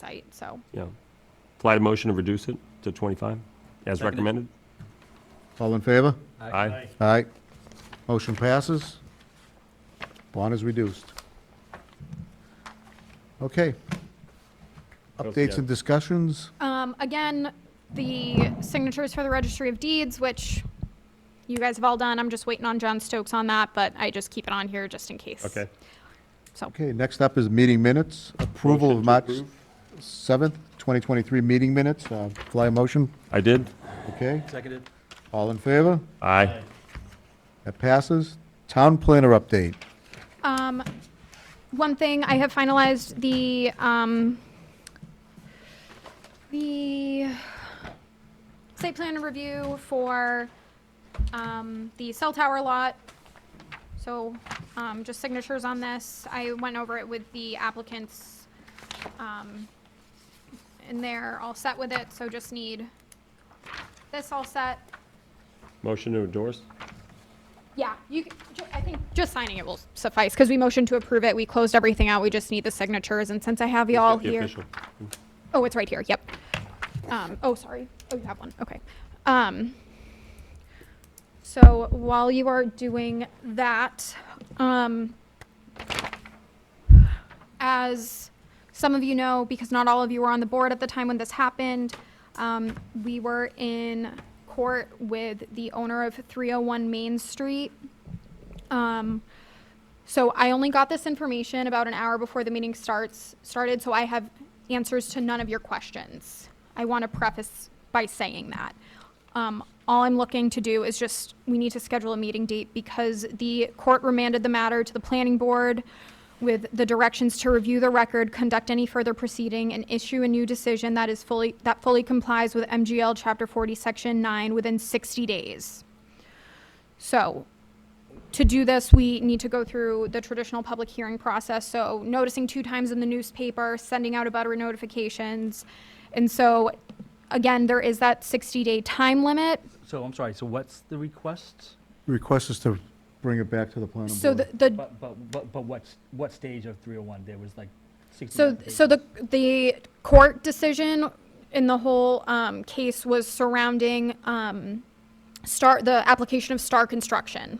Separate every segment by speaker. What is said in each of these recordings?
Speaker 1: site, so.
Speaker 2: Yeah. Apply to motion to reduce it to 25, as recommended?
Speaker 3: All in favor?
Speaker 2: Aye.
Speaker 3: Aye. Motion passes. Bond is reduced. Okay.
Speaker 2: else
Speaker 3: Updates
Speaker 2: you
Speaker 3: and discussions?
Speaker 1: Um, again, the signatures for the registry of deeds, which you guys have all done, I'm just waiting on John Stokes on that, but I just keep it on here just in case.
Speaker 2: Okay.
Speaker 1: So,
Speaker 3: Okay, next up is meeting minutes. Approval of March 7th, 2023 meeting minutes. Uh, Fly a motion,
Speaker 2: I did?
Speaker 3: okay?
Speaker 4: Seconded.
Speaker 3: All in favor?
Speaker 2: Aye.
Speaker 3: That passes. Town planner update.
Speaker 1: um, one thing, I have finalized the, um, the site plan review for, um, the cell tower lot. So, um, just signatures on this. I went over it with the applicants, um, and they're all set with it, so just need this all set.
Speaker 2: Motion to endorse?
Speaker 1: Yeah, you, c- ju- I think just signing it will suffice, because we motioned to approve it, we closed everything out, we just need the signatures, and since I have you all
Speaker 2: The
Speaker 1: here.
Speaker 2: official.
Speaker 1: Oh, it's right here, yep. Um, oh, sorry, oh, you have one, okay. Um, so while you are doing that, um, as some of you know, because not all of you were on the board at the time when this happened, um, we were in court with the owner of 301 Main Street. Um, so I only got this information about an hour before the meeting starts, started, so I have answers to none of your questions. I want to preface by saying that. Um, all I'm looking to do is just, we need to schedule a meeting date because the court remanded the matter to the planning board with the directions to review the record, conduct any further proceeding, and issue a new decision that is fully, that fully complies with MGL Chapter 40, Section 9 within 60 days. So, to do this, we need to go through the traditional public hearing process, so noticing two times in the newspaper, sending out abutter notifications. And so, again, there is that 60-day time limit.
Speaker 4: So I'm sorry, so what's the request?
Speaker 3: Request is to bring it back to the planning board.
Speaker 1: So the- the,
Speaker 4: But, but, but, but what's, what stage of 301? There was like 60.
Speaker 1: so, so the, the court decision in the whole um, case was surrounding um, Star, the application of Star Construction.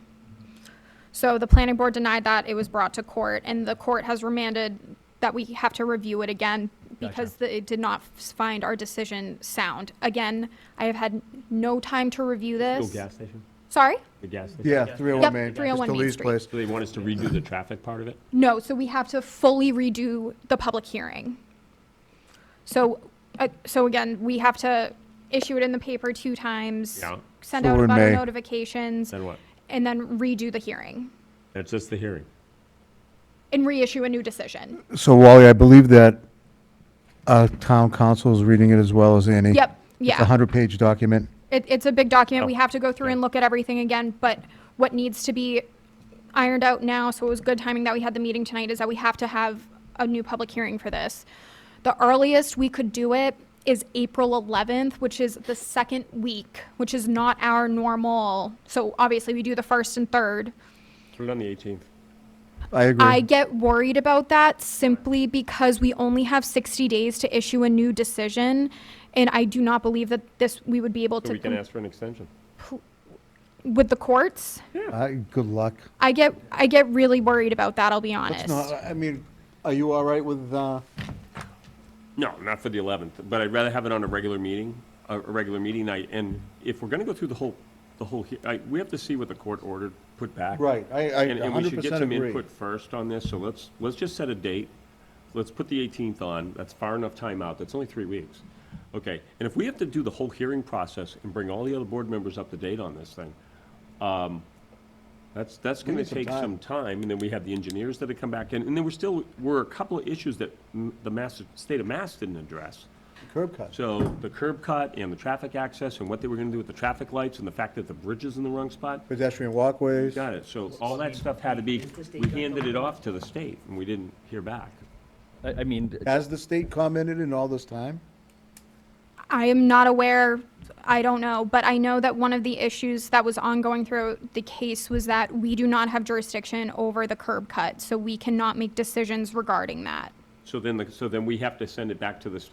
Speaker 1: So the planning board denied that, it was brought to court, and the court has remanded that we have to review it again because the- it did not f- find our decision sound. Again, I have had no time to review
Speaker 2: Little
Speaker 1: this.
Speaker 2: gas station?
Speaker 1: Sorry?
Speaker 2: The gas station?
Speaker 3: Yeah, 301
Speaker 1: Yep,
Speaker 3: Main.
Speaker 1: 301
Speaker 3: Mr.
Speaker 1: Main
Speaker 3: Lee's
Speaker 1: Street.
Speaker 3: place.
Speaker 2: So they want us to redo the traffic part of it?
Speaker 1: No, so we have to fully redo the public hearing. So, uh, so again, we have to issue it in the paper two times.
Speaker 2: Yeah.
Speaker 1: Send
Speaker 3: So
Speaker 1: out
Speaker 3: we're in
Speaker 1: abutter
Speaker 3: May.
Speaker 1: notifications,
Speaker 2: Then what?
Speaker 1: and then redo the hearing,
Speaker 2: That's just the hearing.
Speaker 1: and reissue a new decision.
Speaker 3: So Wally, I believe that uh, town council is reading it as well as Annie.
Speaker 1: Yep,
Speaker 3: It's a
Speaker 1: yeah.
Speaker 3: 100-page document.
Speaker 1: It, it's a big document.
Speaker 2: Oh,
Speaker 1: We have to go through and look at everything again, but what needs to be ironed out now, so it was good timing that we had the meeting tonight, is that we have to have a new public hearing for this. The earliest we could do it is April 11th, which is the second week, which is not our normal. So obviously, we do the first and third.
Speaker 2: Put it on the 18th.
Speaker 1: I
Speaker 3: I agree.
Speaker 1: get worried about that simply because we only have 60 days to issue a new decision, and I do not believe that this, we would be able
Speaker 2: So
Speaker 1: to,
Speaker 2: we can
Speaker 1: com-
Speaker 2: ask for an extension.
Speaker 1: with the courts.
Speaker 3: I- Good luck.
Speaker 1: I get, I get really worried about that, I'll be honest.
Speaker 3: I mean, are you all right with, uh?
Speaker 2: No, not for the 11th, but I'd rather have it on a regular meeting, a a regular meeting night. And if we're going to go through the whole, the whole, he- I- we have to see what the court ordered put back.
Speaker 3: Right, I, I
Speaker 2: And, and we should get
Speaker 3: 100%
Speaker 2: some
Speaker 3: agree.
Speaker 2: input first on this, so let's, let's just set a date. Let's put the 18th on, that's far enough time out, that's only three weeks. Okay, and if we have to do the whole hearing process and bring all the other board members up to date on this thing, um, that's, that's gonna
Speaker 3: need some
Speaker 2: take some time, and then we have the engineers that have come back in, and then we're still, were a couple of issues that m- the Mass, state of Mass didn't address.
Speaker 3: Curb cuts.
Speaker 2: So the curb cut and the traffic access and what they were gonna do with the traffic lights and the fact that the bridge is in the wrong spot.
Speaker 3: Pedestrian walkways.
Speaker 2: Got it, so all that stuff had to be, we handed it off to the state, and we didn't hear back.
Speaker 4: I, I mean,
Speaker 3: Has the state commented in all this time?
Speaker 1: I am not aware, I don't know, but I know that one of the issues that was ongoing throughout the case was that we do not have jurisdiction over the curb cut, so we cannot make decisions regarding that.
Speaker 2: So then, the- so then we have to send it back to the state